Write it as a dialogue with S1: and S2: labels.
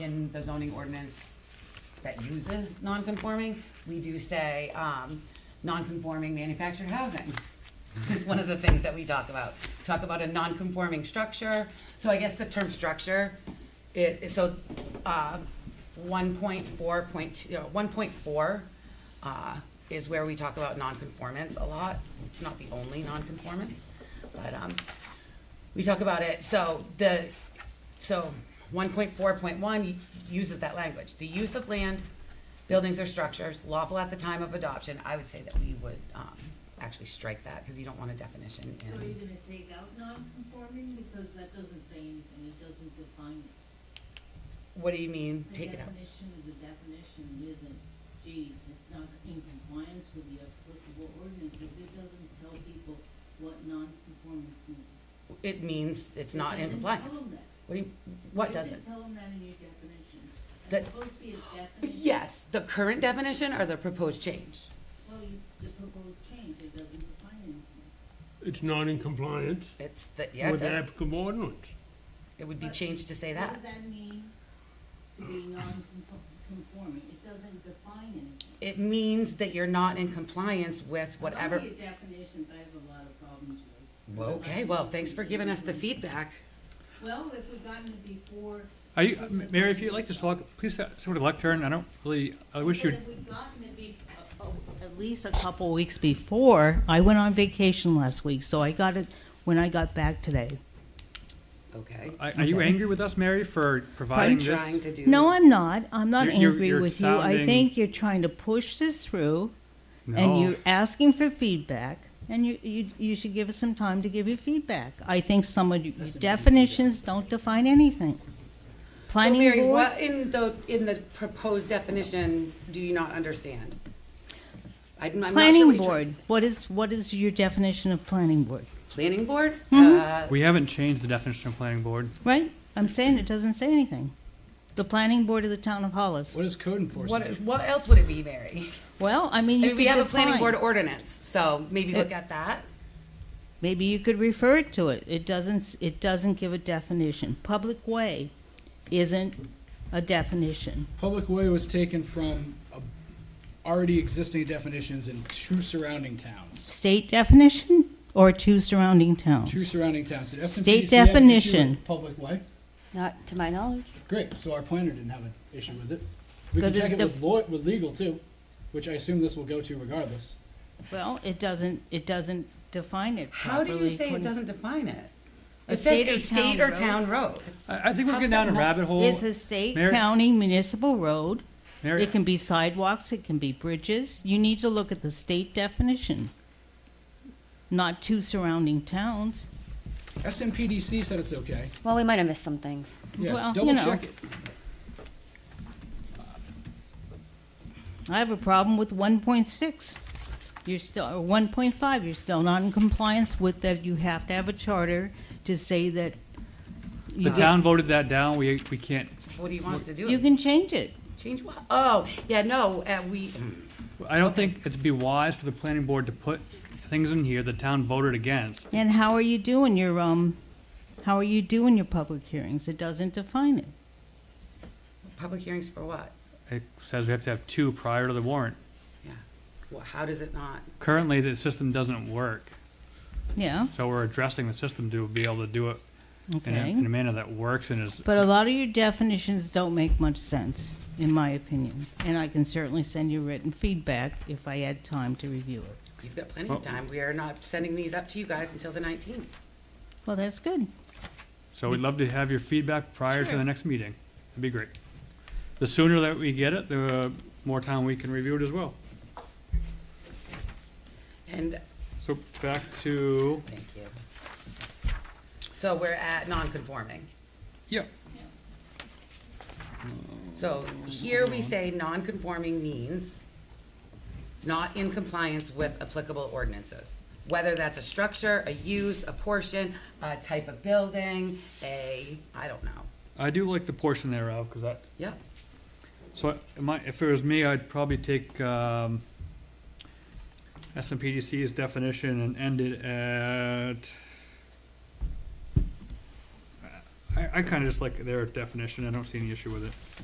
S1: in the zoning ordinance that uses non-conforming, we do say, um, non-conforming manufactured housing is one of the things that we talk about. Talk about a non-conforming structure, so I guess the term structure is, is so, uh, one point four point, you know, one point four, uh, is where we talk about non-conformance a lot. It's not the only non-conformance, but, um, we talk about it, so the, so one point four point one uses that language. The use of land, buildings or structures lawful at the time of adoption, I would say that we would, um, actually strike that, cause you don't want a definition
S2: So are you
S1: in.
S2: gonna take out non-conforming, because that doesn't say anything, it doesn't define it.
S1: What do you mean, take it
S2: A
S1: out?
S2: definition is a definition, it isn't, gee, it's not in compliance with the applicable ordinances, it doesn't tell people what non-conformance means.
S1: It means it's
S2: It
S1: not in
S2: doesn't
S1: compliance.
S2: tell 'em that.
S1: What do you, what does
S2: It
S1: it?
S2: doesn't tell them that in your definition.
S1: That-
S2: It's supposed to be a definition.
S1: Yes, the current definition or the proposed change?
S2: Well, you, the proposed change, it doesn't define anything.
S3: It's not in compliance
S1: It's the, yeah, it
S3: with the
S1: does.
S3: applicable ordinance.
S1: It would be changed to say that.
S2: What does that mean to be non-conforming? It doesn't define anything.
S1: It means that you're not in compliance with
S2: I
S1: whatever.
S2: don't need definitions, I have a lot of problems with.
S1: Well, Okay, well, thanks for giving us the feedback.
S2: Well, if we've gotten it before.
S4: Are you, Mary, if you'd like to talk, please uh, sort of lectern, I don't really, I wish
S2: But
S4: you'd,
S2: if we've gotten it be, uh, oh, at least a couple weeks before, I went on vacation last week, so I got it when I got back today.
S1: Okay.
S4: are are you
S2: Okay.
S4: angry with us, Mary, for providing
S1: I'm
S4: this?
S1: trying to do.
S2: No, I'm not, I'm not
S4: You're- you're-
S2: angry
S4: you're
S2: with you, I
S4: sounding-
S2: think you're trying to push this through, and
S4: No,
S2: you're asking for feedback, and you, you, you should give us some time to give you feedback. I think some of your definitions don't define anything.
S1: So
S2: Planning
S1: Oh, Mary,
S2: board-
S1: what in the, in the proposed definition do you not understand? I'm I'm not sure what
S2: Planning
S1: you're trying
S2: board,
S1: to say.
S2: what is, what is your definition of planning board,
S1: Planning board? Uh,
S2: Mm-hmm.
S4: we haven't changed the definition of planning board.
S2: right? I'm saying it doesn't say anything. The planning board of the town of Hollis.
S5: What is code enforcement?
S1: Uh, What, what else would it be, Mary?
S2: Well, I
S1: I
S2: mean, you
S1: mean,
S2: could
S1: we have a planning
S2: define-
S1: board ordinance, so maybe look
S2: It-
S1: at that.
S2: Maybe you could refer it to it. It doesn't, s- it doesn't give a definition. Public way isn't a definition.
S5: Public way was taken from a- already existing definitions in two surrounding towns.
S2: State definition or two surrounding towns?
S5: Two surrounding towns. Did S&T
S2: State
S5: see an issue with
S2: definition.
S5: Public way?
S6: Not to my knowledge.
S5: Great, so our planner didn't have an issue with it. We can
S2: 'Cause
S5: check
S2: it's
S5: it
S2: def-
S5: with law, with legal too, which I assume this will go to regardless.
S2: Well, it doesn't, it doesn't define it
S1: How do
S2: properly.
S1: you say it
S2: according-
S1: doesn't define it?
S2: A
S1: It says
S2: state
S1: a
S2: or
S1: state
S2: town
S1: or
S2: road.
S1: town road.
S4: I, I think we're
S1: How's
S4: getting
S1: that
S4: down a
S1: not-
S4: rabbit hole.
S2: It's a state,
S4: Mary-
S2: county, municipal road.
S4: Mary,
S2: It can be sidewalks, it can be bridges. You need to look at the state definition, not two surrounding towns.
S5: SMPDC said it's okay.
S6: Well, we might have missed some things.
S2: Well,
S5: Yeah,
S2: you
S5: double
S2: know.
S5: check it.
S2: I have a problem with 1.6. You're still, or 1.5, you're still not in compliance with that. You have to have a charter to say that. you
S4: the
S2: get-
S4: town voted that down, we, we can't,
S1: What do you want us to
S2: You
S1: do?
S2: can change it.
S1: Change what? Oh, yeah, no, uh, we,
S4: I don't think it'd be wise for the planning board to put things in here the town voted against.
S2: And how are you doing your, um, how are you doing your public hearings? It doesn't define it.
S1: public hearings for what?
S4: It says we have to have two prior to the warrant.
S1: Yeah. Well, how does it not?
S4: Currently, the system doesn't work,
S2: Yeah,
S4: so we're addressing the system to be able to do it in a,
S2: okay.
S4: in a manner that works and is
S2: But a lot of your definitions don't make much sense, in my opinion. And I can certainly send you written feedback if I had time to review it.
S1: You've got plenty of time. We are not sending these up to you guys until the nineteenth.
S2: Well, that's good.
S4: So we'd love to have your feedback prior to
S1: Sure.
S4: the next meeting. That'd be great. The sooner that we get it, the more time we can review it as well.
S1: And,
S4: So back to,
S1: thank you. So we're at non-conforming.
S4: yeah,
S1: So here we say non-conforming means not in compliance with applicable ordinances. Whether that's a structure, a use, a portion, a type of building, a, I don't know.
S4: I do like the portion thereof, because that,
S1: Yep,
S4: so am I- if it was me, I'd probably take um, SMPDC's definition and end it at, I- I, I kinda just like their definition, I don't see any issue with it.